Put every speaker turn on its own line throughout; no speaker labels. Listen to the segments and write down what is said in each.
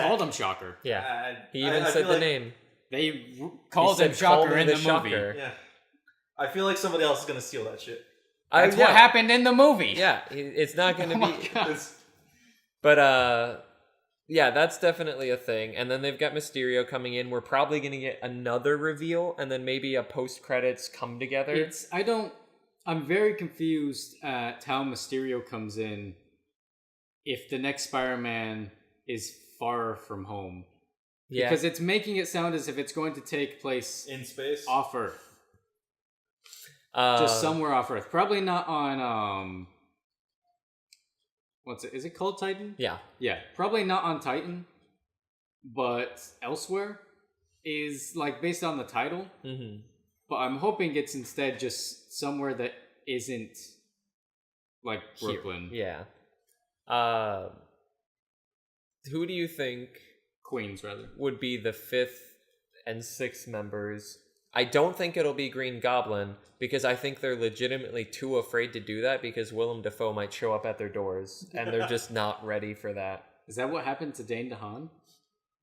called him Shocker.
Yeah.
I-
He
I-
even
I
said
feel
the
like-
name.
They r- called
he
him
said,
Shocker
"Call me
in the, movie.
Shocker."
Yeah. I feel like somebody else is gonna steal that shit.
I-
That's
yeah,
what happened in the movie.
Yeah, he- it's not going to
Oh my
be.
God.
It's-
But uh, yeah, that's definitely a thing. And then they've got Mysterio coming in. We're probably going to get another reveal, and then maybe a post credits come together.
It's I don't. I'm very confused at how Mysterio comes in. If the next Spider-Man is far from home,
yeah,
because it's making it sound as if it's going to take place
in space.
off Earth,
uh,
just somewhere off Earth. Probably not on um. What's it? Is it called Titan?
Yeah,
Yeah, probably not on Titan, but elsewhere is like based on the title.
hmm
But I'm hoping it's instead just somewhere that isn't like
Here.
Brooklyn,
yeah. Uh, who do you think
Queens rather.
would be the fifth and sixth members. I don't think it'll be Green Goblin because I think they're legitimately too afraid to do that because Willem Dafoe might show up at their doors and they're just not ready for that.
Is that what happened to Dane DeHaan?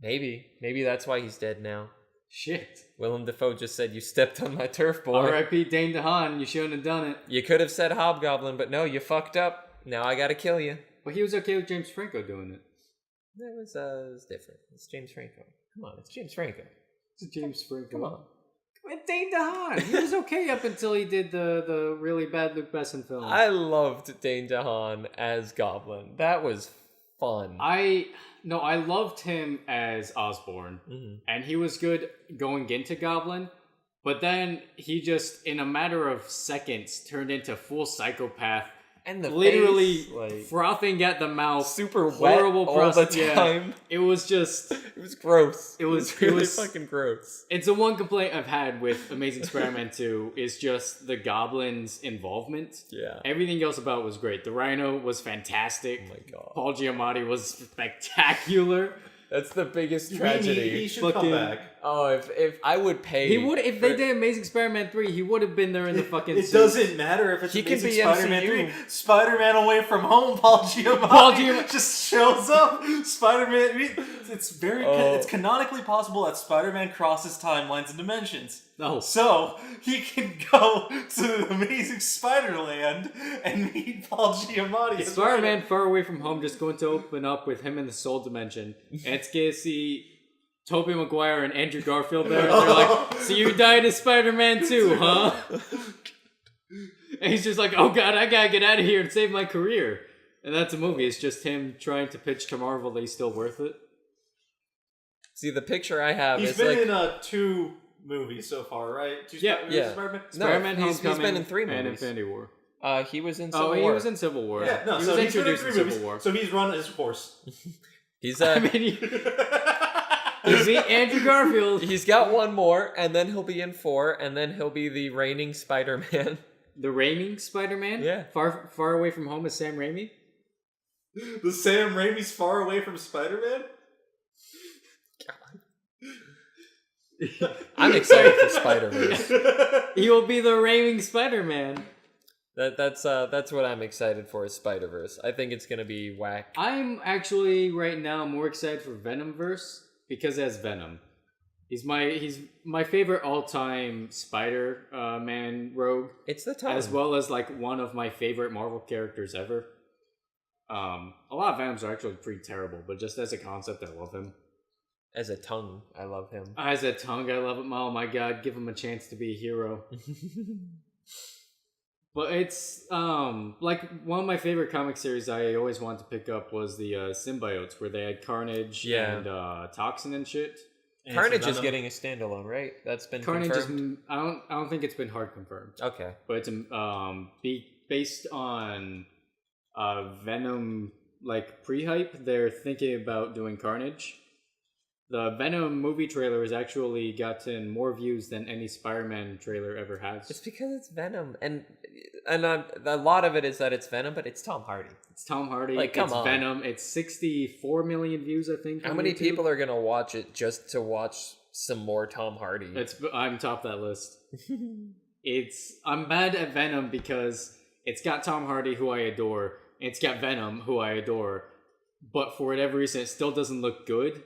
Maybe, maybe that's why he's dead now.
Shit.
Willem Dafoe just said, "You stepped on my turf, boy."
R.I.P. Dane DeHaan. You shouldn't have done it.
You could have said Hobgoblin, but no, you fucked up. Now I gotta kill you.
But he was okay with James Franco doing it.
That was uh, it was different. It's James Franco. Come on, it's James Franco.
It's James Franco.
Come on.
And Dane DeHaan. He was okay up until he did the the really bad Luke Besson film.
I loved Dane DeHaan as Goblin. That was fun.
I no, I loved him as Osborne.
Mhm.
and he was good going into Goblin, but then he just, in a matter of seconds, turned into full psychopath,
and the
literally
face, like,
frothing at the mouth,
super
horrible
wet all the
process- yeah.
time.
It was just.
It was gross.
It was- it
really
was-
fucking gross.
It's the one complaint I've had with Amazing Spider-Man 2 is just the Goblin's involvement.
Yeah.
Everything else about it was great. The Rhino was fantastic.
Oh my god.
Paul Giamatti was spectacular.
That's the biggest
He-
tragedy.
He, he should
Fucking-
come back.
oh, if if I would pay,
He would if they
for-
did Amazing Spider-Man 3, he would have been there in the
It-
fucking
It
suit.
doesn't matter if it's
He can
Amazing
be
Spider-Man
MCU.
three. Spider-Man away from home. Paul Giamatti,
Paul Giam-
just shows up. Spider-Man. I mean, it's very.
Oh.
It's canonically possible that Spider-Man crosses timelines and dimensions.
No.
So he can go to Amazing Spider-Land and meet Paul Giamatti.
It's Spider-Man Far Away From Home just going to open up with him in the Soul Dimension. And it's going to see Tobey Maguire and Andrew Garfield there. And they're like, so you died as Spider-Man too, huh? And he's just like, oh god, I gotta get out of here and save my career. And that's a movie. It's just him trying to pitch to Marvel that he's still worth it.
see the picture I have
He's
is
been
like
in uh, two movies so far, right? Two
Yeah,
Spider-
yeah.
Spider-Man.
No,
Spider-Man
he's- he's
Homecoming
been in three
and
movies.
Infinity War.
uh, he was in Civil
oh, he
War.
was in Civil War.
Yeah, no.
he
so
was
he's been in
introduced
three
in Civil
movies.
War.
So he's run his course.
He's
I
uh,
mean, you, you see Andrew Garfield,
he's got one more, and then he'll be in four, and then he'll be the reigning Spider-Man.
the reigning Spider-Man.
Yeah.
Far Far Away From Home is Sam Raimi.
The Sam Raimi's far away from Spider Man?
I'm excited for Spider-Man.
He will be the raving Spider-Man.
That that's uh that's what I'm excited for is Spider Verse. I think it's gonna be whack.
I'm actually right now more excited for Venomverse because as Venom, he's my he's my favorite all-time Spider-Man rogue,
It's the time
as well as like one of my favorite Marvel characters ever. Um, a lot of Venoms are actually pretty terrible, but just as a concept, I love him.
as a tongue. I love him.
As a tongue, I love him. Oh my god, give him a chance to be a hero. Uh, But it's um like one of my favorite comic series I always wanted to pick up was the uh, symbiotes where they had Carnage
Yeah.
and uh, Toxin and shit.
Carnage is getting a standalone, right? That's been
Carnage
confirmed.
is I don't I don't think it's been hard confirmed,
Okay.
but it's um be based on uh Venom like pre-hype. They're thinking about doing Carnage. The Venom movie trailer has actually gotten more views than any Spider-Man trailer ever has.
It's because it's Venom, and and um, a lot of it is that it's Venom, but it's Tom Hardy.
It's Tom Hardy.
Like, come
it's
on.
Venom. It's 64 million views, I think.
How
on
many
YouTube.
people are gonna watch it just to watch some more Tom Hardy?
It's I'm top that list. it's I'm mad at Venom because it's got Tom Hardy, who I adore. and It's got Venom, who I adore. But for whatever reason, it still doesn't look good.